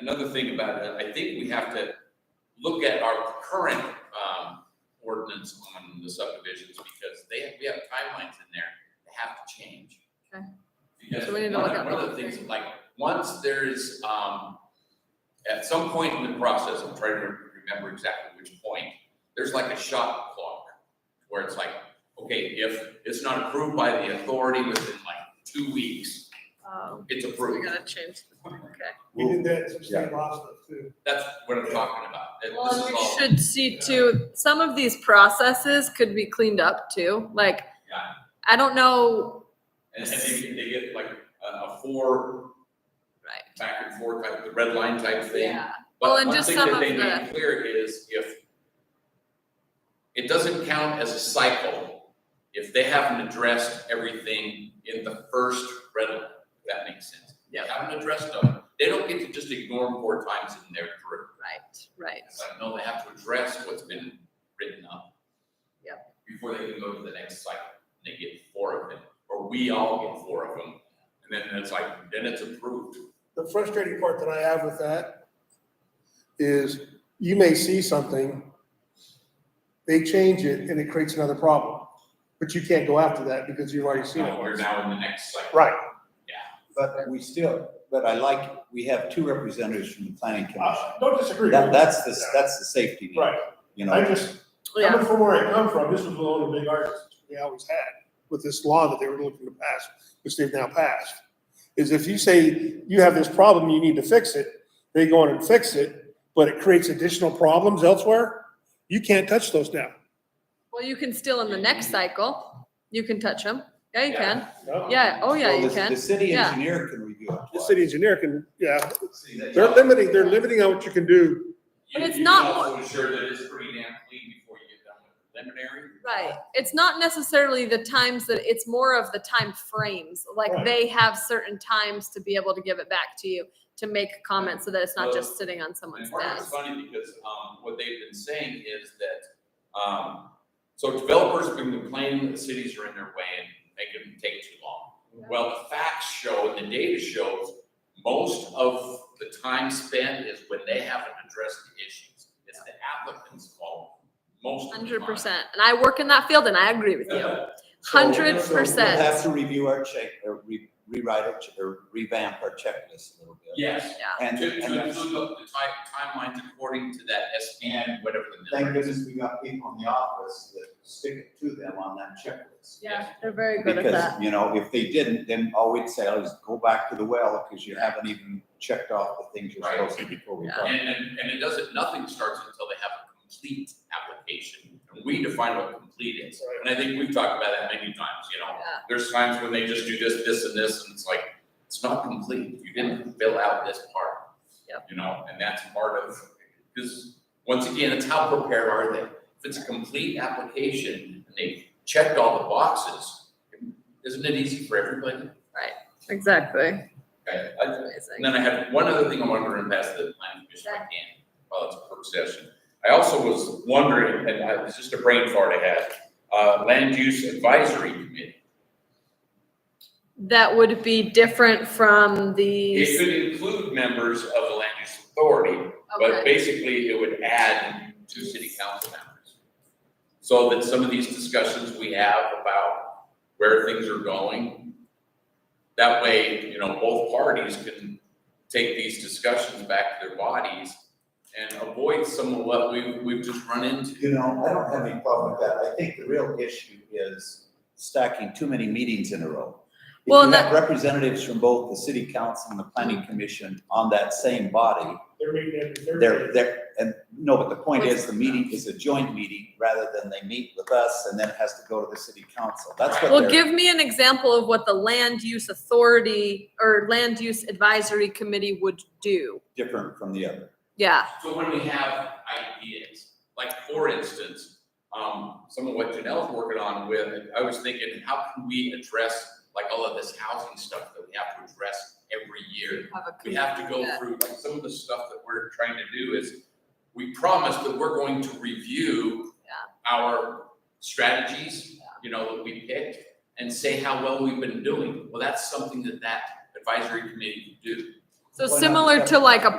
another thing about it, I think we have to look at our current, um, ordinance on the subdivisions because they, have- we have timelines in there that have to change. Okay. Because So we need one, to look at one of the both. things, like, once there is, um, at some point in the process, I'm trying to remember exactly which point, there's like a shot clock where it's like, okay, if it's not approved by the authority within like two weeks, Um, it's so we approved. gotta change, okay. We Well, did that, some yeah. state law stuff too. That's what I'm talking about. That This Well, is we all, should see too, some of these processes could be cleaned up too, like, yeah. I don't know, And, and they, they get like a, a four right, back and forth, like the red line type thing. yeah, Well, But and one just thing some that they of made clear is if it doesn't count as a cycle if they haven't addressed everything in the first red line, if that makes sense. They haven't addressed them. They don't get to just ignore them four times and they're through. right, right, It's like, no, they have to address what's been written up. Before they can go to the next cycle, and they get four of them, or we all get four of them, and then it's like, then it's approved. The frustrating part that I have with that is you may see something, they change it and it creates another problem. But you can't go after that because you've already seen Now, it. we're now in the next cycle. Right, But we still, but I like, we have two representatives from the planning commission. I Uh, don't disagree. That, that's the, that's the safety net. Ah, Right, You I know, just, yeah, coming from where I come from, this was one of the big arguments we always had with this law that they were looking to pass, which they've now passed. Is if you say you have this problem, you need to fix it, they go in and fix it, but it creates additional problems elsewhere, you can't touch those now. well, you can still in the next cycle, you can touch them, yeah, you can, No. yeah, oh yeah, Well, you the- can, The city yeah. engineer can review it. The twice. city engineer can, yeah, See, that- they're limiting, they're limiting on what you can do. But You- it's you not can what- also ensure that it's pretty damn clean before you get done with preliminary. right. It's not necessarily the times that, it's more of the time frames. like Right. they have certain times to be able to give it back to you, to make comments so that it's not just sitting on someone's And part of desk. it's funny because, um, what they've been saying is that, um, so developers have been complaining that the cities are in their way and they can take too long. Well, the facts show and the data shows, most of the time spent is when they haven't addressed the issues. It's the applicant's fault, most of the time. Uh, Hundred percent, and I work in that field and I agree with you, hundred So we'll percent, have to review our check, or re- rewrite our ch or revamp our checklist a little bit. Yes. yeah, And, To, to and include the the time, timelines according to that SBN, whatever the thank number is. goodness we got people in the office that stick it to them on that checklist. yeah, they're very good at that. Because, you know, if they didn't, then all we'd say is go back to the well, because you haven't even checked off the things you're Right. supposed to before we. Yeah. go. And, and, and it doesn't, nothing starts until they have a complete application, and we define what complete is. And I think we've talked about that many times, you know, Yeah. there's times when they just do this, this, and this, and it's like, it's not complete, you didn't fill out this part. Yep. You know, and that's part of, because, once again, it's how prepared are they? If it's a complete application, and they've checked all the boxes, isn't it easy for everybody? Exactly, Okay, I, and amazing, then I had one other thing I wanted to run past the planning commission if I can, while it's a work session. I also was wondering, and I, it's just a brain fart I had, uh, land use advisory committee. that would be different from It the, could include members of the land use authority, but okay, basically it would add two city council members. So that some of these discussions we have about where things are going, that way, you know, both parties can take these discussions back to their bodies and avoid some of what we, we've just run into. You know, I don't have any problem with that. I think the real issue is stacking too many meetings in a row. If Well, you that- have representatives from both the city council and the planning commission on that same body, They're meeting every they're, they're, and, no, but the point is, the meeting is a joint meeting rather than they meet with us and then it has to go to the city council. That's what well, they're, give me an example of what the land use authority or land use advisory committee would do. different from the other. Yeah, So when we have ideas, like for instance, um, some of what Janelle's working on with, I was thinking, how can we address like all of this housing stuff that we have to address every year? have a We have to go Yeah. through, like some of the stuff that we're trying to do is, we promise that we're going to review our strategies, you know, that we picked and say how well we've been doing. Well, that's something that that advisory committee can do. So Why not similar to separate? like a